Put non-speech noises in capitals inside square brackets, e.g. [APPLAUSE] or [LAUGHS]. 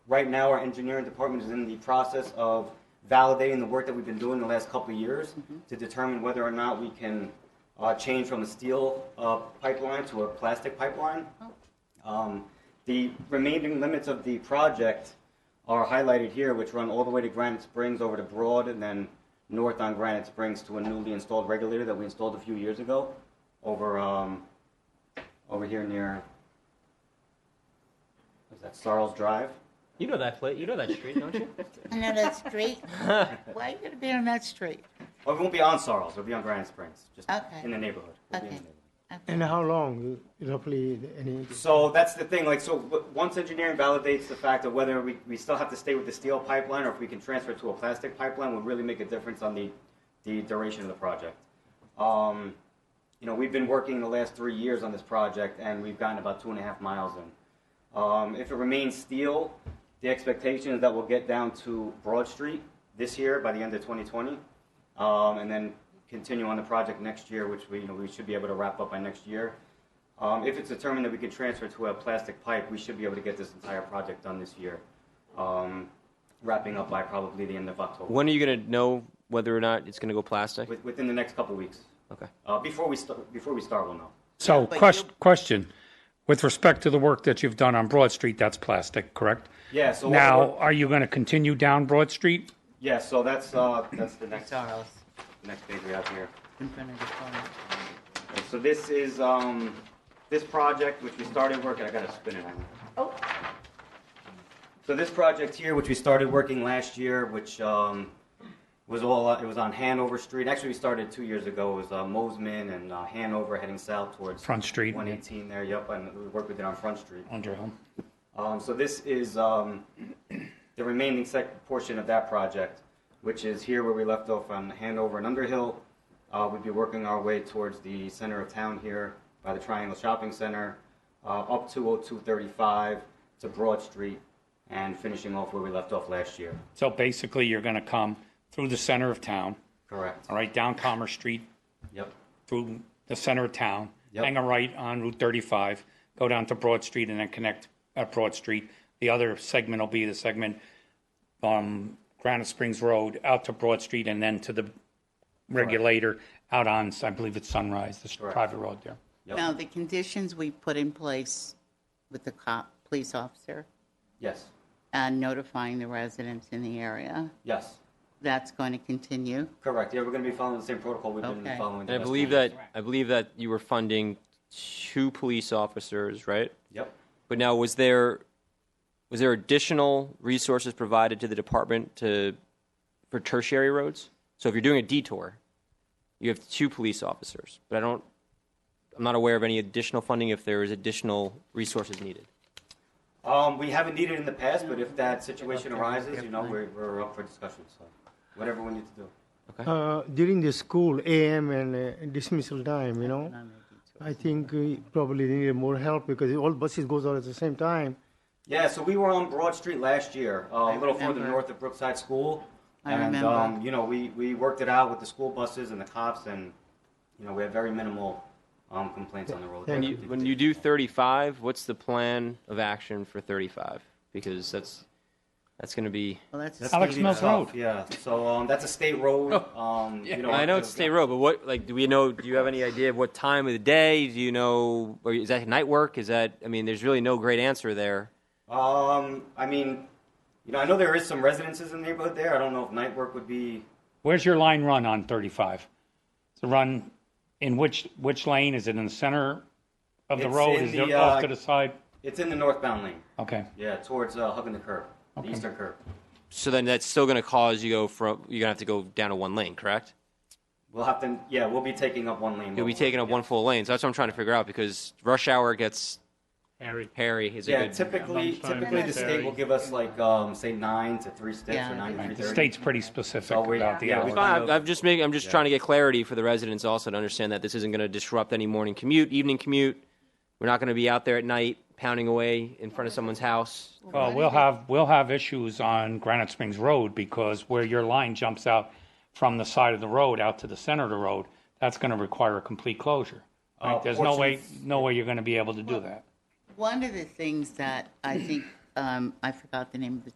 Right now, our engineering department is in the process of validating the work that we've been doing the last couple of years to determine whether or not we can uh, change from a steel uh, pipeline to a plastic pipeline. Um, The remaining limits of the project are highlighted here, which run all the way to Granite Springs over to Broad and then north on Granite Springs to a newly installed regulator that we installed a few years ago over, um, over here near, what's that, Sarles Drive? You know that place. You know that street, don't you? I know that street. Why are you gonna be on that street? Oh, it won't be on Sarles, it'll be on Granite Springs, just Okay. in the neighborhood. It'll be in the Okay. neighborhood. And how long, roughly, any? So that's the thing, like, so w- once engineering validates the fact of whether we, we still have to stay with the steel pipeline or if we can transfer to a plastic pipeline would really make a difference on the, the duration of the project. Um, you know, we've been working the last three years on this project and we've gotten about two and a half miles in. Um, if it remains steel, the expectation is that we'll get down to Broad Street this year by the end of 2020. Um, and then continue on the project next year, which we, you know, we should be able to wrap up by next year. Um, if it's determined that we can transfer to a plastic pipe, we should be able to get this entire project done this year, um, wrapping up by probably the end of October, [LAUGHS] when are you gonna know whether or not it's gonna go plastic? with, within the next couple of weeks. Okay. Uh, before we start, before we start, we'll know. So, but quest- you- question, with respect to the work that you've done on Broad Street, that's plastic, correct? Yeah. So what Now, we're- are you going to continue down Broad Street? yeah. So that's uh, that's the next Charles, next page we have here. in front of the phone. And so this is um, this project which we started working. I gotta spin it. on. Oh. So this project here, which we started working last year, which um, was all uh, it was on Hanover Street. Actually, we started two years ago. It was uh, Mosman and uh, Hanover heading south towards Front Street. 118 there. Yep, and we worked with it on Front Street. Under home. Um, so this is um, the remaining sec- portion of that project, which is here where we left off on Hanover and Underhill. Uh, we'd be working our way towards the center of town here by the Triangle Shopping Center, uh, up to 02235 to Broad Street, and finishing off where we left off last year. So basically, you're going to come through the center of town, Correct. all right, down Commerce Street, Yep. through the center of town, Yep. hang a right on Route 35, go down to Broad Street, and then connect at Broad Street. The other segment will be the segment um, Granite Springs Road out to Broad Street, and then to the regulator out on, I believe it's Sunrise, this Correct. private road there. Yep. Now, the conditions we put in place with the cop, police officer, Yes. and notifying the residents in the area, Yes. that's going to continue. Correct. Yeah, we're going to be following the same protocol we've been Okay. following. the And I last believe time. that I believe that you were funding two police officers, right? Yep. But now, was there was there additional resources provided to the department to for tertiary roads? So if you're doing a detour, you have two police officers, but I don't. I'm not aware of any additional funding if there is additional resources needed. Um, we haven't needed in the past, but if that situation arises, you know, we're, we're up for discussion, so whatever we need to do. Uh, during the school AM and uh, dismissal time, you know, I think we probably need more help because all buses goes out at the same time. Yeah, so we were on Broad Street last year, uh, a little further remember. north of Brookside School. I and, remember. um, you know, we, we worked it out with the school buses and the cops, and, you know, we had very minimal um, complaints on the road. Thank When you, when you do 35, what's the plan of action for 35? Because that's that's going to be. Well, that's, That's a gonna Alex be Mills tough, Road. Yeah, so um, that's a state road. Um, you know, I know the- it's state road, but what like do we know? Do you have any idea of what time of the day? Do you know? Or is that night work? Is that? I mean, there's really no great answer there. Um, I mean, you know, I know there is some residences in the neighborhood there. I don't know if night work would be. Where's your line run on 35? The run in which, which lane? Is it in the center of the It's road? in Is it the, uh, off to the side? It's in the northbound lane. Okay. Yeah, towards uh, hugging the curb, the eastern curb. So then that's still going to cause you go from you're going to have to go down to one lane, correct? We'll have to. Yeah, we'll be taking up one lane. You'll be over. taking up one full lane. So that's what I'm trying to figure out because rush hour gets Harry. hairy. Is a Yeah, good- typically, lunchtime, typically the lunchtime. state will give us like um, say nine to three sticks Yeah. or nine to three Right, The thirty. state's pretty specific So we- about the yeah, we hours. find No, I'm, I'm just making. I'm just trying to get clarity for the residents also to understand that this isn't going to disrupt any morning commute, evening commute. We're not going to be out there at night pounding away in front of someone's house. Well, Uh, we'll have, we'll have issues on Granite Springs Road because where your line jumps out from the side of the road out to the center of the road, that's going to require a complete closure. right? There's no way, portions- no way you're going to be able to do that. One of the things that I think um, I forgot the name of the